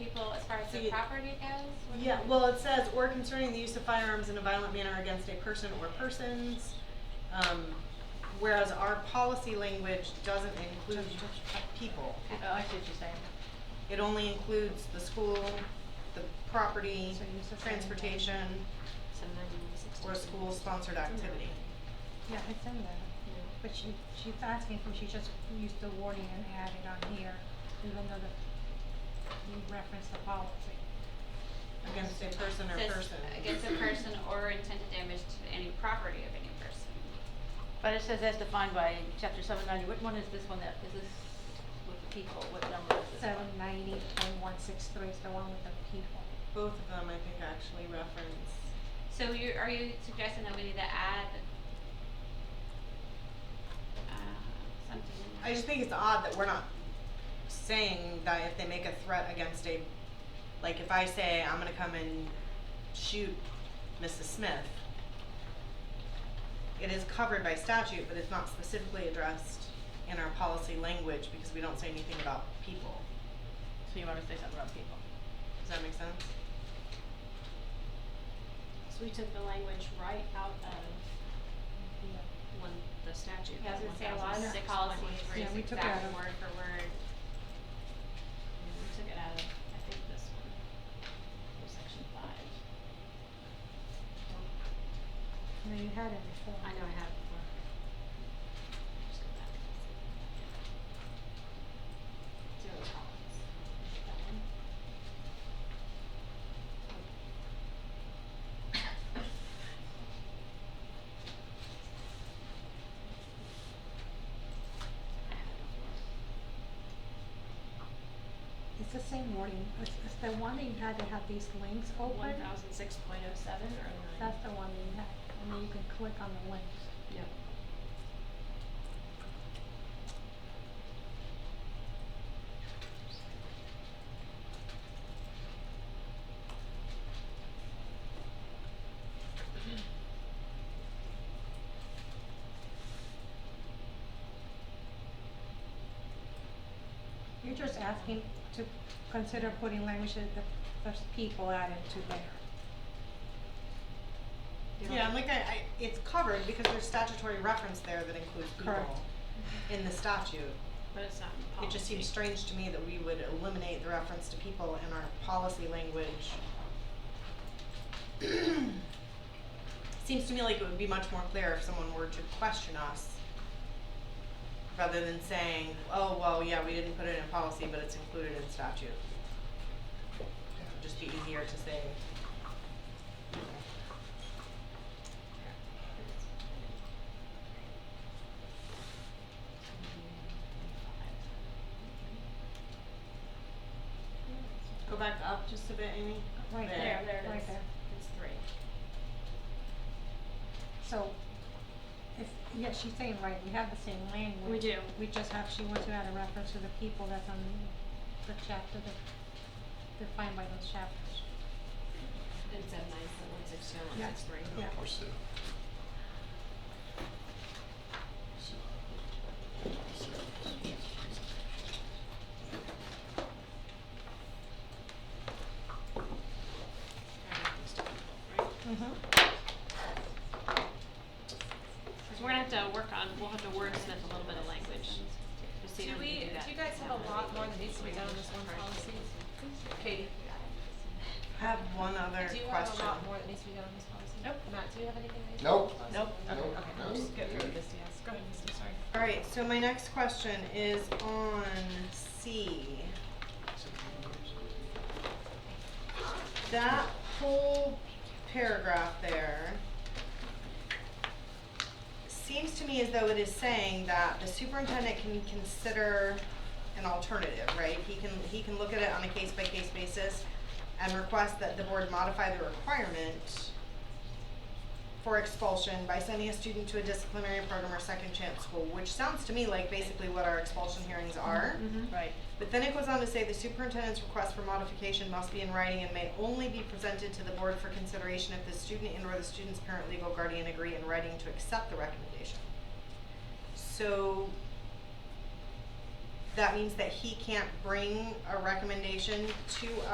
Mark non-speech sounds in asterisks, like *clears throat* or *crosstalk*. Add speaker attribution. Speaker 1: as the
Speaker 2: See,
Speaker 1: property goes? What do
Speaker 2: Yeah,
Speaker 1: you-
Speaker 2: well, it says, or concerning the use of firearms in a violent manner against a person or persons. Um, whereas our policy language doesn't include people.
Speaker 3: Oh, I see what you're saying.
Speaker 2: It only includes the school, the property,
Speaker 1: So you're just saying that-
Speaker 2: transportation, or school-sponsored activity.
Speaker 3: Yeah, it's in there, but she, she's asking if she just used the wording and added on here, even though the, you referenced the policy.
Speaker 2: Against a person or
Speaker 1: Says,
Speaker 2: person.
Speaker 1: Against a person or intended damage to any property of any person.
Speaker 4: But it says as defined by chapter seven ninety, which one is this one that, is this with the people, what number is this?
Speaker 3: Seven ninety point one six three is the one with the people.
Speaker 2: Both of them, I think, actually reference.
Speaker 1: So you, are you suggesting that we need to add, uh, something? in
Speaker 2: I just think it's odd that we're not saying that if they make a threat against a, like if I say I'm gonna come and shoot Mrs. Smith, it is covered by statute, but it's not specifically addressed in our policy language because we don't say anything about people.
Speaker 4: So you wanna say something about people?
Speaker 2: Does that make sense?
Speaker 5: So we took the language right out of one, the statute.
Speaker 1: Yeah, I was gonna say a lot of
Speaker 5: six
Speaker 1: policies were
Speaker 3: Yeah,
Speaker 1: just
Speaker 3: we took it out
Speaker 1: exact
Speaker 3: of-
Speaker 1: word for word.
Speaker 5: We took it out of, I think, this one, or section five.
Speaker 3: No, you had it before.
Speaker 5: I know I have it before. Just go back. Zero tolerance. That one. I had it before.
Speaker 3: It's the same wording, it's, it's the one that you had that had these links
Speaker 2: Oh,
Speaker 3: open.
Speaker 5: One thousand six point oh seven or nine?
Speaker 3: That's the one that you had, and then you can click on the links.
Speaker 5: Yep.
Speaker 3: You're just asking to consider putting language that the, there's people added to there.
Speaker 2: Yeah, and like I, I, it's covered because there's statutory reference there that includes
Speaker 3: Correct.
Speaker 2: people in the statute.
Speaker 5: But it's not in
Speaker 2: It just seems
Speaker 5: policy.
Speaker 2: strange to me that we would eliminate the reference to people in our policy language. *clears throat* Seems to me like it would be much more clear if someone were to question us rather than saying, oh, well, yeah, we didn't put it in policy, but it's included in statute. It would just be easier to say. Go back up just a bit, Amy.
Speaker 3: Right
Speaker 5: There, there it
Speaker 3: Right
Speaker 5: is.
Speaker 3: there.
Speaker 5: It's three.
Speaker 3: So, if, yeah, she's saying, right, we have the same language.
Speaker 5: We do.
Speaker 3: We just have, she wants to add a reference to the people that's on the chapter that defined by those chapters.
Speaker 5: It's at nine point one six two,
Speaker 3: Yeah.
Speaker 5: one six three.
Speaker 3: Yeah.
Speaker 6: Or Sue. Sue. Sue.
Speaker 3: Mm-hmm.
Speaker 5: So we're gonna have to work on, we'll have to wordsmith a little bit of language. to see
Speaker 7: Do
Speaker 5: if
Speaker 7: we,
Speaker 5: can that.
Speaker 7: do you guys have a lot more that needs to be done on this one policy? Katie?
Speaker 2: I have one other
Speaker 7: Do
Speaker 2: question.
Speaker 7: you have a lot more that needs to be done on this policy?
Speaker 2: Nope.
Speaker 7: Matt, do you have anything that needs to be done on this
Speaker 6: Nope.
Speaker 7: policy?
Speaker 2: Nope.
Speaker 6: Nope.
Speaker 7: Okay, okay, I'll
Speaker 6: No.
Speaker 7: just get through this, yes, go ahead, Misty, sorry.
Speaker 2: All right, so my next question is on C. That whole paragraph there seems to me as though it is saying that the superintendent can consider an alternative, right? He can, he can look at it on a case-by-case basis and request that the board modify the requirement for expulsion by sending a student to a disciplinary program or second chance school, which sounds to me like basically what our expulsion hearings are.
Speaker 3: Mm-hmm.
Speaker 4: Right.
Speaker 2: But then it goes on to say the superintendent's request for modification must be in writing and may only be presented to the board for consideration if the student and or the student's parent, legal guardian agree in writing to accept the recommendation. So that means that he can't bring a recommendation to